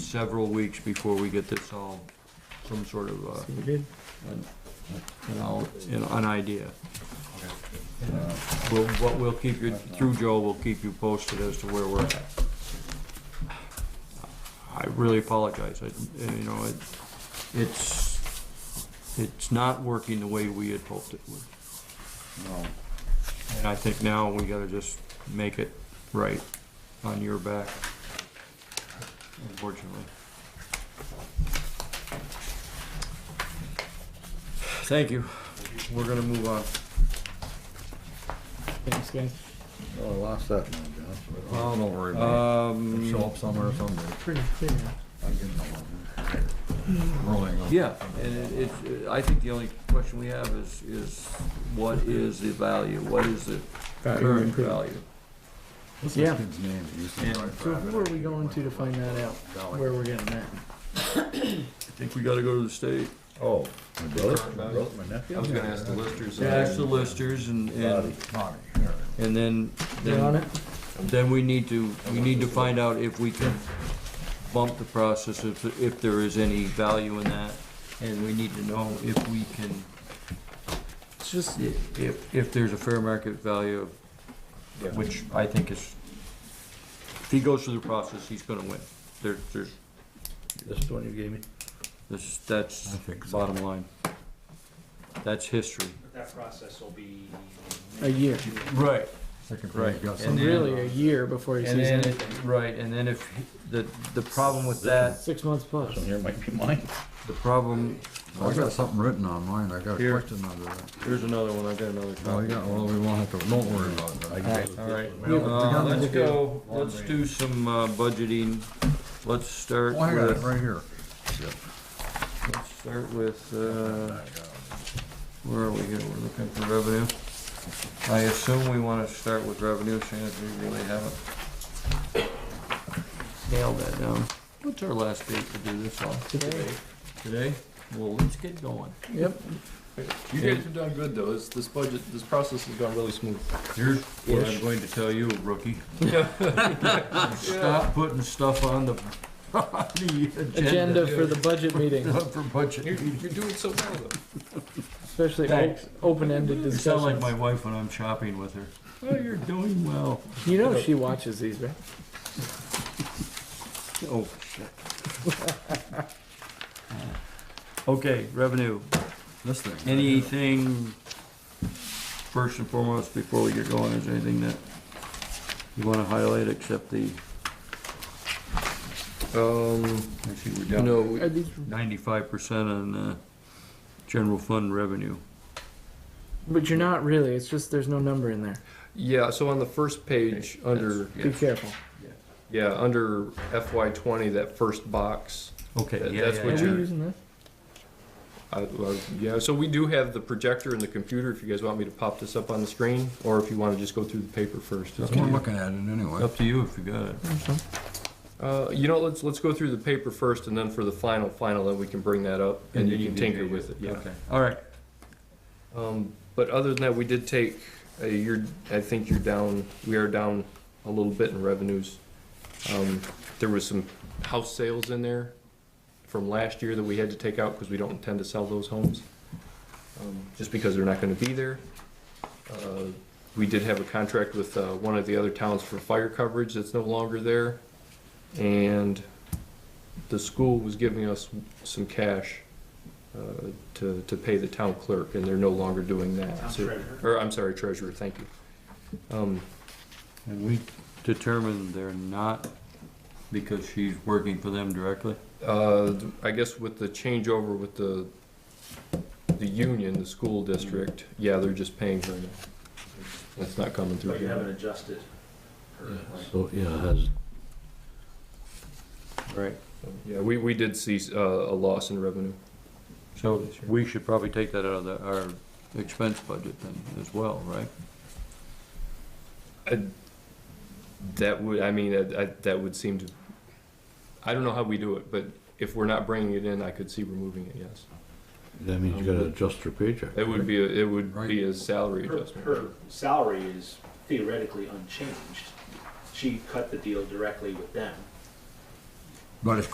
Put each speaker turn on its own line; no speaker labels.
several weeks before we get this all, some sort of, uh,
We did.
you know, you know, an idea. Uh, We'll, what we'll keep you, through Joe, we'll keep you posted as to where we're at. I really apologize, I, you know, it, it's, it's not working the way we had hoped it would.
No.
And I think now we gotta just make it right on your back, unfortunately. Thank you. We're gonna move on.
Thanks, guys.
Oh, I lost that one, John. Uh,
Well, don't worry about it. It'll
Um,
Show up somewhere someday.
Pretty clear.
Uh,
I'm getting along.
Really, uh,
yeah, and it, it, I think the only question we have is, is what is the value? What is the current value?
What's
Yeah.
this kid's name? He used to
Yeah.
drive
So
for
who are we going to to find that out,
Dollar.
where we're getting that?
I think we gotta go to the state.
Oh, my brother,
Current
my
value?
brother, my nephew.
I was gonna ask the listers. and-
Ask the listers and, and,
Bobby, Bobby, here.
and then.
You
then-
on it?
Then we need to, we need to find out if we can bump the process, if, if there is any value in that. And we need to know if we can,
It's just,
if, if there's a fair market value,
Yeah.
which I think is, if he goes through the process, he's gonna win. There, there's,
This is the one you gave me?
this, that's
I think so.
bottom line. That's history.
But that process will be.
A year.
Right.
Second
Right.
page, got
And
some.
then-
really a year before he
And
sees
then,
it.
it- right, and then if, he- the, the problem with that,
Six months plus.
Here might be mine.
the problem,
I got something written on mine, I got a
Here.
question under that.
here's another one, I got another
Oh,
copy.
you got, well, we won't have to, don't worry about
I
that.
got it.
All right,
Yeah, but
uh,
together
let's
with
go, let's do some uh, budgeting. Let's start
Oh, I got it
with,
right here.
let's start with, uh, where are we here? We're looking for revenue. I assume we want to start with revenue, seeing as we really haven't nailed that down. What's our last date to do this on?
Today.
Today? Well, let's get going.
Yep,
You guys have done good though. This, this budget, this process has gone really smooth.
Here's what I'm going to tell you, rookie. Stop putting stuff on the, on the
agenda
agenda
for the budget meeting,
for budget
You're, you're doing so well though.
especially op-
Thanks.
open-ended
You sound like
discussions.
my wife when I'm shopping with her. Oh, you're doing well.
You know she watches these, right?
Oh, shit. Okay, revenue.
This thing. right here.
Anything, first and foremost, before we get going, is anything that you wanna highlight except the,
Um,
actually, we're
you
down
know,
Are these,
ninety-five percent on, uh, general fund revenue.
but you're not really, it's just there's no number in there.
Yeah, so on the first page, under,
Yeah.
Be careful.
yeah, under FY twenty, that first box.
Okay,
That-
yeah,
that's
yeah,
Are we
what
yeah.
you're-
using this?
I, well, yeah, so we do have the projector and the computer if you guys want me to pop this up on the screen, or if you wanna just go through the paper first.
that's what I'm looking at it anyway.
Up to you if you got it.
Uh, you know, let's, let's go through the paper first and then for the final, final, then we can bring that up and you can tinker with it, yeah.
Okay, all right.
Um, but other than that, we did take, uh, you're, I think you're down, we are down a little bit in revenues. Um, there was some house sales in there from last year that we had to take out because we don't intend to sell those homes. um, Just because they're not gonna be there. Uh, We did have a contract with, uh, one of the other towns for fire coverage that's no longer there. And the school was giving us some cash, uh, to, to pay the town clerk, and they're no longer doing that.
Town
So-
treasurer.
Or, I'm sorry, treasurer, thank you. Um,
And we determined they're not because she's working for them directly?
Uh, I guess with the changeover with the, the union, the school district, yeah, they're just paying her now. That's not coming through
But you haven't
here.
adjusted. her, like,
So, yeah, it has,
Right.
Yeah, we, we did see, uh, a loss in revenue.
So we should probably take that out of the, our expense budget then as well, right?
I- That would, I mean, I, I, that would seem to, I don't know how we do it, but if we're not bringing it in, I could see removing it, yes.
that means you gotta adjust your paycheck.
It would be, a- it would be a salary
Her,
adjustment.
her salary is theoretically unchanged. She cut the deal directly with them.
But it's